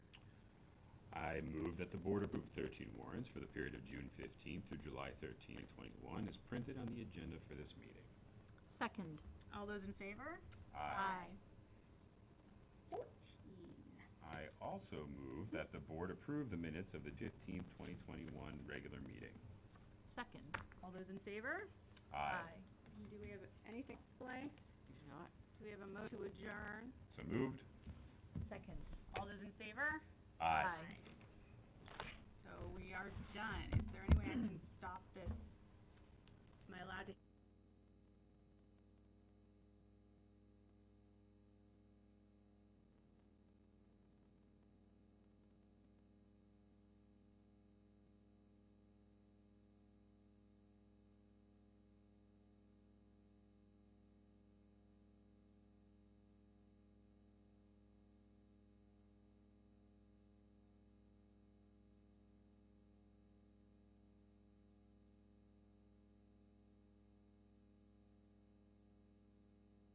I move that the board approve thirteen warrants for the period of June fifteenth through July thirteenth, twenty-one, as printed on the agenda for this meeting. Second. All those in favor? Aye. Fourteen. I also move that the board approve the minutes of the fifteenth, twenty twenty-one regular meeting. Second. All those in favor? Aye. Do we have anything to display? Not. Do we have a mo to adjourn? So moved? Second. All those in favor? Aye. So we are done.